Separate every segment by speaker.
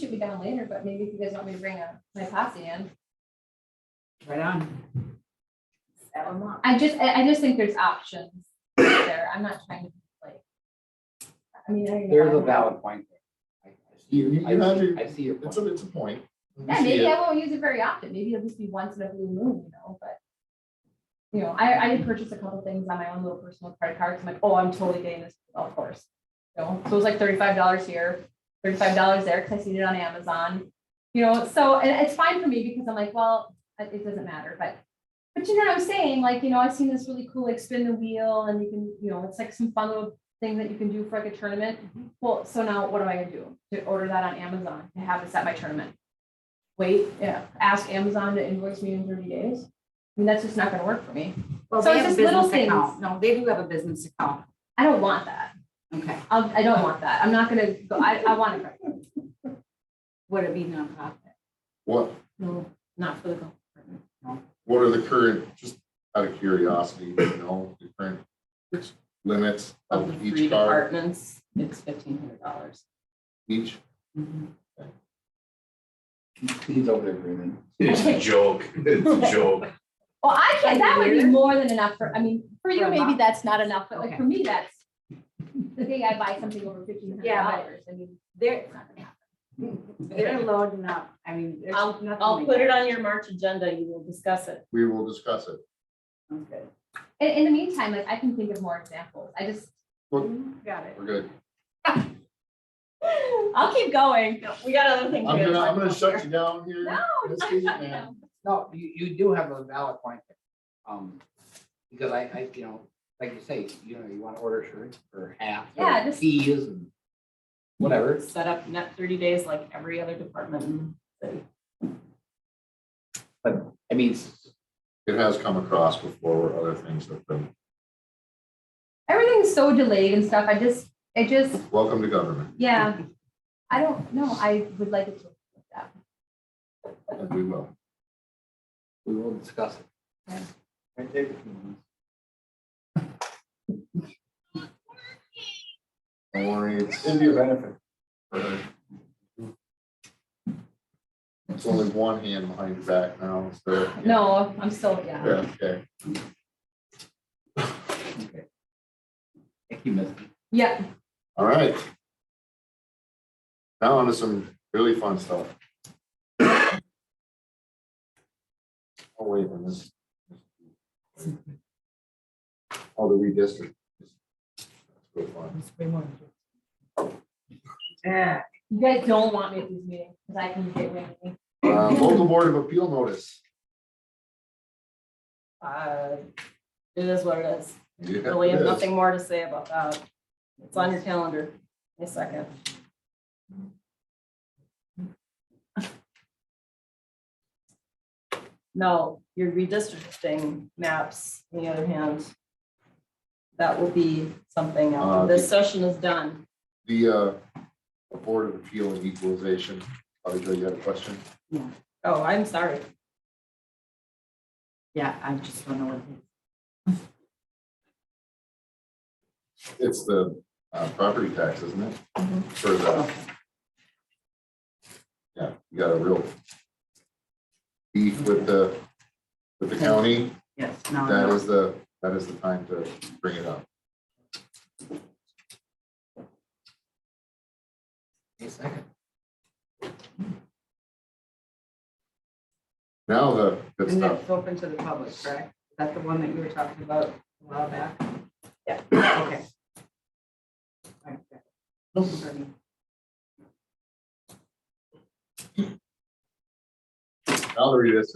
Speaker 1: should be done later, but maybe if you guys want me to bring a, my posse in.
Speaker 2: Right on.
Speaker 3: That one won't.
Speaker 1: I just, I, I just think there's options there. I'm not trying to like. I mean, I. don't know.
Speaker 4: There's a valid point. there. I- I see your-
Speaker 5: You- you
Speaker 4: I
Speaker 5: have
Speaker 4: see-
Speaker 5: your-
Speaker 4: I see your
Speaker 5: It's
Speaker 4: point.
Speaker 5: a, it's a point. We
Speaker 1: Yeah,
Speaker 5: see
Speaker 1: maybe
Speaker 5: it.
Speaker 1: I won't use it very often. Maybe it'll just be once in a blue moon, you know, but. You know, I, I did purchase a couple things on my own little personal credit cards. I'm like, oh, I'm totally getting this golf course. You know, so it was like thirty-five dollars here, thirty-five dollars there, because I seen it on Amazon. You know, so, and it's fine for me because I'm like, well, it it doesn't matter, but. But you know what I'm saying? Like, you know, I've seen this really cool, like spin the wheel and you can, you know, it's like some fun little thing that you can do for like a tournament.
Speaker 5: Mm-hmm.
Speaker 1: Well, so now what am I gonna do? To order that on Amazon to have this at my tournament? Wait, yeah, ask Amazon to invoice me in thirty days? I mean, that's just not gonna work for me.
Speaker 3: Well,
Speaker 1: So
Speaker 3: they
Speaker 1: it's
Speaker 3: have a
Speaker 1: just little
Speaker 3: business account. No, they do have a business account.
Speaker 1: I don't want that.
Speaker 3: Okay.
Speaker 1: I'll, I don't want that. I'm not gonna go, I, I want to.
Speaker 3: Would it be nonprofit?
Speaker 5: What,
Speaker 3: No, not for the golf department.
Speaker 5: what are the current, just out of curiosity, you know, the current limits
Speaker 6: of
Speaker 5: of
Speaker 6: the three
Speaker 5: each car,
Speaker 6: departments, it's fifteen hundred dollars.
Speaker 5: each?
Speaker 3: Mm-hmm.
Speaker 4: Please over there, Raymond.
Speaker 7: It's a joke. It's a joke.
Speaker 1: Well, I can't, that would be
Speaker 3: Weird.
Speaker 1: more than enough for, I mean, for you,
Speaker 3: For a
Speaker 1: maybe
Speaker 3: month.
Speaker 1: that's not enough, but like
Speaker 3: Okay.
Speaker 1: for me, that's the day I buy something over fifteen hundred
Speaker 3: Yeah,
Speaker 1: dollars. I mean,
Speaker 3: They're,
Speaker 1: it's not gonna happen.
Speaker 3: they're loading up. I mean, there's
Speaker 6: I'll,
Speaker 3: nothing like.
Speaker 6: I'll put it
Speaker 3: that.
Speaker 6: on your March agenda, you will discuss it.
Speaker 5: We will discuss it.
Speaker 3: Sounds good.
Speaker 1: In, in the meantime, like I can think of more examples. I just,
Speaker 3: Mm-hmm. Got it.
Speaker 5: We're good.
Speaker 6: I'll keep going, we got other things.
Speaker 5: I'm
Speaker 6: we
Speaker 5: gonna,
Speaker 6: gotta
Speaker 5: I'm
Speaker 6: talk
Speaker 5: gonna
Speaker 6: about
Speaker 5: shut
Speaker 6: here.
Speaker 5: you down here.
Speaker 1: No,
Speaker 5: This
Speaker 1: I'm
Speaker 5: week,
Speaker 1: shutting
Speaker 5: man.
Speaker 1: down.
Speaker 4: No, you, you do have a valid point there. Um, because I, I, you know, like you say, you know, you want to order shirts or hats
Speaker 1: Yeah,
Speaker 4: or
Speaker 1: just-
Speaker 4: tees and whatever.
Speaker 6: Set up net thirty days like every other department in the city.
Speaker 4: I mean, s-
Speaker 5: It has come across before where other things have been,
Speaker 1: everything's so delayed and stuff. I just, it just,
Speaker 5: welcome to government,
Speaker 1: yeah. I don't know. I would like it to. look that.
Speaker 5: and we will.
Speaker 4: we will discuss it.
Speaker 5: Don't worry, it's,
Speaker 4: It'd be a benefit.
Speaker 5: it's only one hand behind your back now, so.
Speaker 1: No, I'm still,
Speaker 5: Yeah,
Speaker 1: yeah.
Speaker 5: okay.
Speaker 4: Okay. Thank you, Misty.
Speaker 1: Yeah,
Speaker 5: All right. Now onto some really fun stuff. Oh, wait, and this. Oh, the redistrict. That's good fun.
Speaker 3: Yeah.
Speaker 1: you guys don't want me at these meetings because I can get windy.
Speaker 5: Uh, Local Board of Appeal notice.
Speaker 6: Uh, It is what it is,
Speaker 5: Yeah,
Speaker 6: really have
Speaker 5: it is.
Speaker 6: nothing more to say about that. It's on your calendar, a second. No, your redistricting maps, on the other hand. That will be something
Speaker 5: Uh,
Speaker 6: else. This session is done.
Speaker 5: The uh, Board of Appeal and Equalization, Audrey, you had a question?
Speaker 6: Oh, I'm sorry.
Speaker 3: Yeah, I just don't know what. it is.
Speaker 5: It's the uh, property tax, isn't it?
Speaker 6: Mm-hmm.
Speaker 5: For the. Yeah, you got a real beef with the, with the county.
Speaker 3: Yes, no,
Speaker 5: That
Speaker 6: Uh-huh.
Speaker 3: no.
Speaker 5: is the, that is the time to bring it up.
Speaker 4: A second.
Speaker 5: Now the good
Speaker 3: And
Speaker 5: stuff.
Speaker 3: that's open to the public, correct? Is that the one that you were talking about a while back?
Speaker 6: Yeah.
Speaker 3: Okay. All right, good. Those are me.
Speaker 5: Now the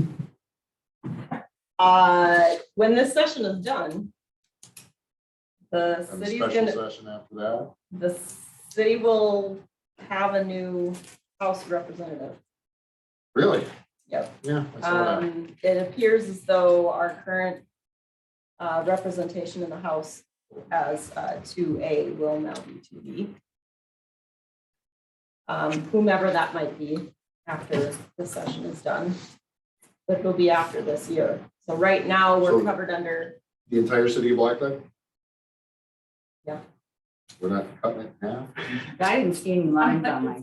Speaker 5: redistricting.
Speaker 6: Uh, when this session is done, the
Speaker 5: And the
Speaker 6: city's
Speaker 5: special
Speaker 6: gonna,
Speaker 5: session after that.
Speaker 6: the city will have a new House representative.
Speaker 5: Really?
Speaker 6: Yep.
Speaker 5: Yeah. I saw that.
Speaker 6: Um, it appears as though our current uh, representation in the House as uh, two A will now be two B. Um, whomever that might be after the session is done, but it'll be after this year. So right now, we're
Speaker 5: So-
Speaker 6: covered under,
Speaker 5: The entire city of Blacklight?
Speaker 6: Yeah.
Speaker 5: We're not cutting it in half?
Speaker 3: I didn't see any lines on my.